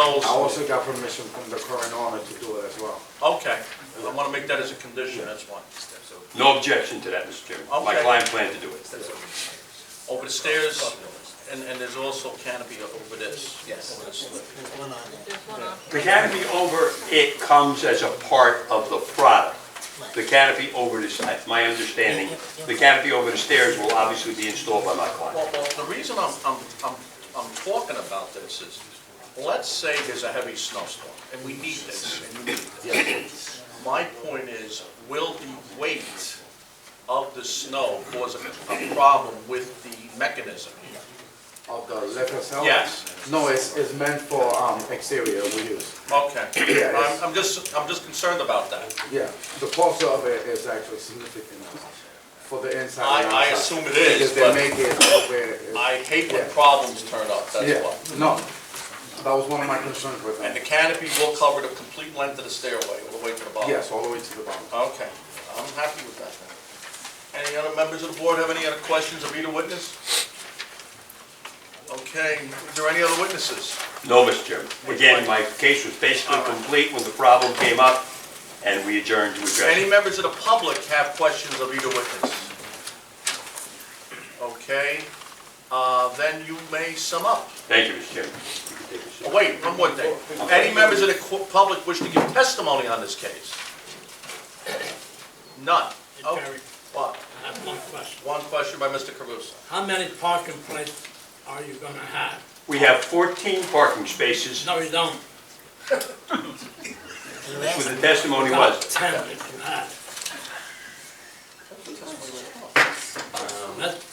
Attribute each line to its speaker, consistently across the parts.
Speaker 1: those-
Speaker 2: I also got permission from the current owner to do it as well.
Speaker 1: Okay, I want to make that as a condition, that's why.
Speaker 3: No objection to that, Mr. Chairman. My
Speaker 1: Okay.
Speaker 3: client planned to do it.
Speaker 1: Over the stairs, and, and there's also canopy over this.
Speaker 4: Yes.
Speaker 1: Over this lip.
Speaker 5: There's one on
Speaker 3: The canopy over it comes as a part of the product. The canopy over this, that's my understanding, the canopy over the stairs will obviously be installed by my client.
Speaker 1: Well, well, the reason I'm, I'm, I'm, I'm talking about this is, let's say there's a heavy snowstorm, and we need this, and you need this. My point is, will the weight of the snow cause a, a problem with the mechanism?
Speaker 2: Of the liquor itself?
Speaker 1: Yes.
Speaker 2: No, it's, it's meant for, um, exterior we use.
Speaker 1: Okay,
Speaker 2: Yeah, it's-
Speaker 1: I'm, I'm just, I'm just concerned about that.
Speaker 2: Yeah, the cost of it is actually significant for the inside.
Speaker 1: I-
Speaker 2: and
Speaker 1: I
Speaker 2: outside.
Speaker 1: assume it is,
Speaker 2: Because
Speaker 1: but-
Speaker 2: they make it where it's.
Speaker 1: I hate when
Speaker 2: Yeah.
Speaker 1: problems turn up, that's why.
Speaker 2: Yeah, no, that was one of my concerns with
Speaker 1: And the
Speaker 2: them.
Speaker 1: canopy will cover the complete length of the stairway, all the way to the bottom?
Speaker 2: Yes, all the way to the bottom.
Speaker 1: Okay, I'm happy with that then. Any other members of the board have any other questions of either witness? Okay, is there any other witnesses?
Speaker 3: No, Mr. Chairman. Again, my case was basically complete when the problem came up, and we adjourned to address
Speaker 1: Any
Speaker 3: it.
Speaker 1: members of the public have questions of either witness? Okay, uh, then you may sum up.
Speaker 3: Thank you, Mr. Chairman. You can take a seat.
Speaker 1: Oh, Wait, one more thing. Any members of the qu- public wish to give testimony on this case? None? Oh,
Speaker 6: Gary,
Speaker 1: What?
Speaker 6: I have one question.
Speaker 1: One question by Mr. Caruso.
Speaker 6: How many parking places are you gonna have?
Speaker 3: We have 14 parking spaces,
Speaker 6: No, you don't.
Speaker 3: That's what the testimony
Speaker 6: About
Speaker 3: was.
Speaker 6: Ten if you have. Let's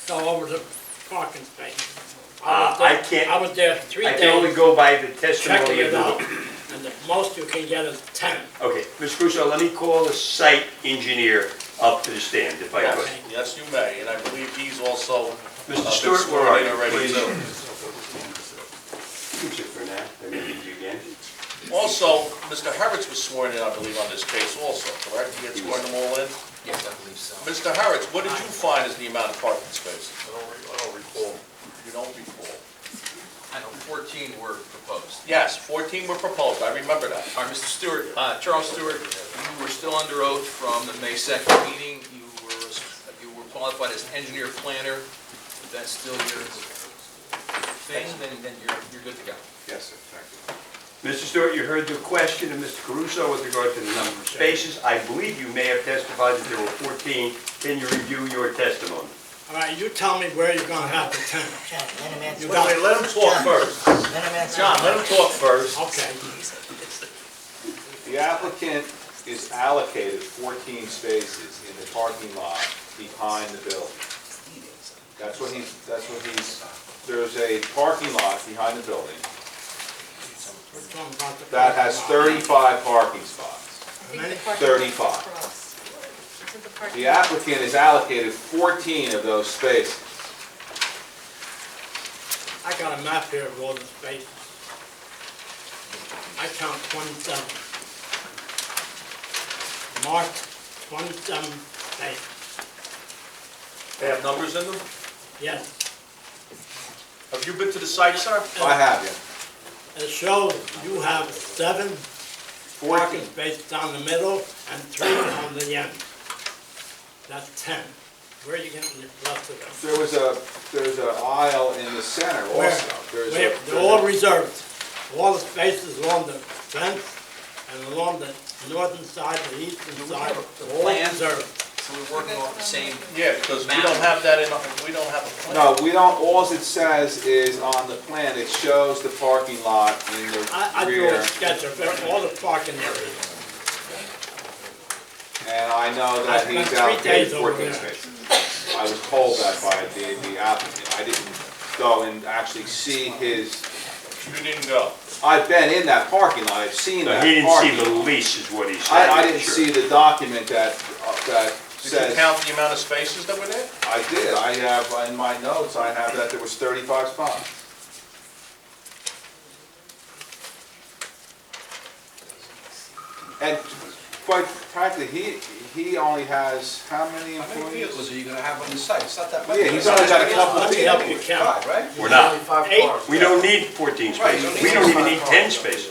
Speaker 6: go Um, over the parking space.
Speaker 3: Ah, I can't-
Speaker 6: I was there three
Speaker 3: I can only
Speaker 6: days
Speaker 3: go by the
Speaker 6: checking
Speaker 3: testimony of
Speaker 6: it
Speaker 3: the
Speaker 6: out, and the most you can get is ten.
Speaker 3: Okay, Ms. Crusoe, let me call the site engineer up to the stand if I could.
Speaker 1: Yes, you may, and I believe he's also.
Speaker 3: Mr.
Speaker 1: uh,
Speaker 3: Stewart, where are you,
Speaker 1: already,
Speaker 3: please?
Speaker 1: too.
Speaker 3: You can sit for now, then we can do it again.
Speaker 1: Also, Mr. Harretts was sworn in, I believe, on this case also, correct? He had sworn them all in?
Speaker 4: Yes, I believe so.
Speaker 1: Mr. Harretts, what did you find as the amount of parking spaces?
Speaker 4: I don't re- I don't recall.
Speaker 1: You don't recall.
Speaker 4: I know 14 were proposed.
Speaker 1: Yes, 14 were proposed, I remember that.
Speaker 4: All right, Mr. Stewart, uh, Charles Stewart, you were still under oath from the May 2nd meeting. You were, you were qualified as engineer planner. If that's still your thing, then, then you're, you're good to go.
Speaker 2: Yes, sir, thank
Speaker 3: Mr. Stewart, you heard the question of Mr. Caruso with regard to the number of spaces. I believe you may have testified that there were 14. Can you review your testimony?
Speaker 6: All right, you tell me where you're gonna have the ten.
Speaker 7: John, let him answer.
Speaker 6: You
Speaker 1: Wait,
Speaker 6: got
Speaker 1: wait, let him talk first.
Speaker 7: Let him answer.
Speaker 1: John, let him talk first.
Speaker 6: Okay,
Speaker 8: The applicant is allocated 14 spaces in the parking lot behind the building. That's what he's, that's what he's, there's a parking lot behind the building
Speaker 6: we're talking about the.
Speaker 8: that has 35 parking spots.
Speaker 5: I think the parking
Speaker 8: Thirty-five.
Speaker 5: lot's across. Isn't the parking
Speaker 8: The
Speaker 5: lot-
Speaker 8: applicant is allocated 14 of those spaces.
Speaker 6: I got a map here of all the spaces. I count twenty-seven. Marked twenty-seven spaces,
Speaker 1: They have numbers in them?
Speaker 6: yes.
Speaker 1: Have you been to the site, sir?
Speaker 3: Oh,
Speaker 8: I have you.
Speaker 6: It shows you have seven parking spaces down the middle and three on the end. That's ten. Where are you getting the rest of them?
Speaker 8: There was a, there's an aisle in the center
Speaker 6: Where?
Speaker 8: also. There's a-
Speaker 6: Where? They're all reserved. All the spaces along the fence and along the northern side, the eastern side, they're all
Speaker 4: plan?
Speaker 6: reserved.
Speaker 4: So we're working off the same,
Speaker 1: Yeah, because we don't have that in, we don't have a plan.
Speaker 8: No, we don't, alls it says is on the plan, it shows the parking lot in
Speaker 6: I, I
Speaker 8: the
Speaker 6: drew a
Speaker 8: rear.
Speaker 6: sketch of all the parking areas.
Speaker 8: And I know that
Speaker 6: I spent
Speaker 8: he's
Speaker 6: three
Speaker 8: allocated
Speaker 6: days over
Speaker 8: fourteen
Speaker 6: there.
Speaker 8: spaces. I was told that by the, the applicant. I didn't go and actually see his,
Speaker 1: You didn't go.
Speaker 8: I've been in that parking lot, I've seen
Speaker 3: No,
Speaker 8: that
Speaker 3: he didn't see the
Speaker 8: parking.
Speaker 3: lease is what he said.
Speaker 8: I, I didn't
Speaker 3: Sure.
Speaker 8: see the document that, uh, that
Speaker 1: Did you
Speaker 8: says,
Speaker 1: count the amount of spaces that were there?
Speaker 8: I did, I have, in my notes, I have that there was thirty-five spots. And quite frankly, he, he only has, how many
Speaker 4: How many
Speaker 8: employees?
Speaker 4: vehicles are you gonna have on the site? It's not that much.
Speaker 8: Yeah, he's only got a couple of
Speaker 6: Let me help
Speaker 8: vehicles.
Speaker 6: you count.
Speaker 4: Five, right?
Speaker 3: We're not.
Speaker 2: Only five
Speaker 6: Eight.
Speaker 2: cars.
Speaker 3: We don't need 14
Speaker 4: Right, you
Speaker 3: spaces.
Speaker 4: don't
Speaker 3: We
Speaker 4: need
Speaker 3: don't even need 10 spaces.